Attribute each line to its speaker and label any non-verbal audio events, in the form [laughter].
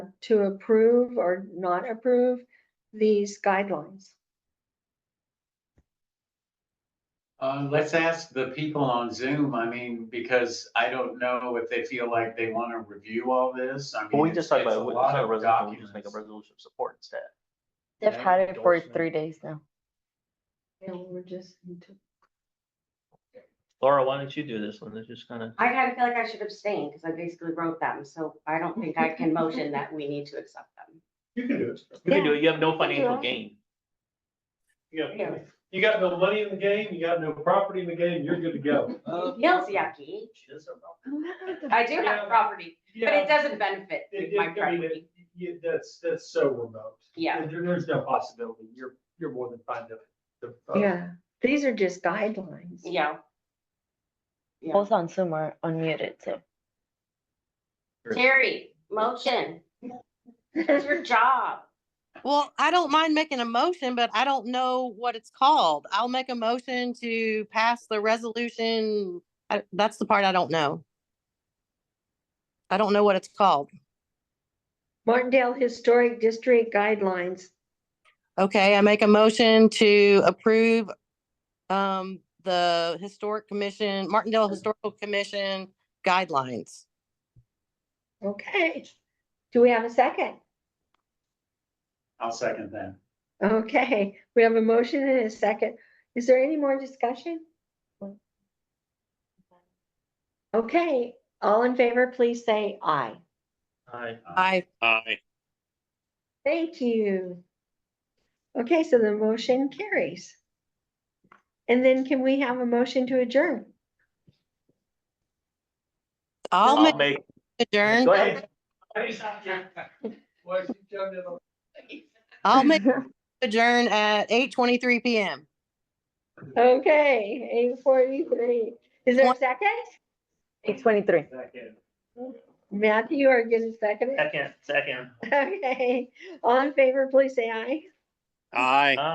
Speaker 1: to approve or not approve these guidelines.
Speaker 2: Uh, let's ask the people on Zoom, I mean, because I don't know if they feel like they want to review all this, I mean.
Speaker 3: Well, we just talked
Speaker 2: it's-
Speaker 3: about,
Speaker 2: it's
Speaker 3: it,
Speaker 2: a
Speaker 3: we
Speaker 2: lot
Speaker 3: just had a
Speaker 2: of
Speaker 3: resolution, we just make a
Speaker 2: documents.
Speaker 3: resolution of support instead.
Speaker 4: They've
Speaker 2: Yeah,
Speaker 4: had it for
Speaker 2: endorsement.
Speaker 4: three days now.
Speaker 1: And we're just. into-
Speaker 3: Laura, why don't you do this one? It's just kind of,
Speaker 5: I kind of feel like I should abstain because I basically wrote them, so I don't think I can motion that we need to accept them.
Speaker 6: You can do it.
Speaker 3: you can do it, you have no
Speaker 1: can do
Speaker 3: financial
Speaker 1: it.
Speaker 3: gain.
Speaker 6: You got, you got no money in the game, you got no property in the game, you're good to go.
Speaker 5: Feels yucky. I do have property, but it doesn't benefit
Speaker 6: It-
Speaker 5: my
Speaker 6: it- I mean,
Speaker 5: property.
Speaker 6: it- you- that's, that's so remote.
Speaker 5: Yeah.
Speaker 6: There- there's no possibility, you're, you're more than fine to. to, uh,
Speaker 1: Yeah, these are just guidelines.
Speaker 5: Yeah. Yeah.
Speaker 4: Both on Zoom are unmuted, so.
Speaker 5: Terry, motion. It's your job.
Speaker 7: Well, I don't mind making a motion, but I don't know what it's called. I'll make a motion to pass the resolution. I- That's the part I don't know. I don't know what it's called.
Speaker 1: [laughs] Martindale Historic District Guidelines.
Speaker 7: Okay, I make a motion to approve um, the Historic Commission, Martindale Historical Commission guidelines.
Speaker 1: Okay. Do we have a second?
Speaker 2: I'll second that.
Speaker 1: Okay, we have a motion and a second. Is there any more discussion? Okay, all in favor, please say aye.
Speaker 3: Hi.
Speaker 7: I,
Speaker 8: Aye.
Speaker 1: Thank you. Okay, so the motion carries. And then can we have a motion to adjourn?
Speaker 7: I'll
Speaker 3: I'll
Speaker 7: make
Speaker 3: make,
Speaker 7: adjourn.
Speaker 3: go ahead.
Speaker 6: Why'd you jump in on-
Speaker 7: I'll make adjourn at eight twenty-three PM.
Speaker 1: Okay, eight forty-three. Is there a second?
Speaker 4: Eight twenty-three.
Speaker 3: Second,
Speaker 1: Matthew, are you gonna second it?
Speaker 3: second, second.
Speaker 1: Okay, all in favor, please say aye.
Speaker 8: Aye.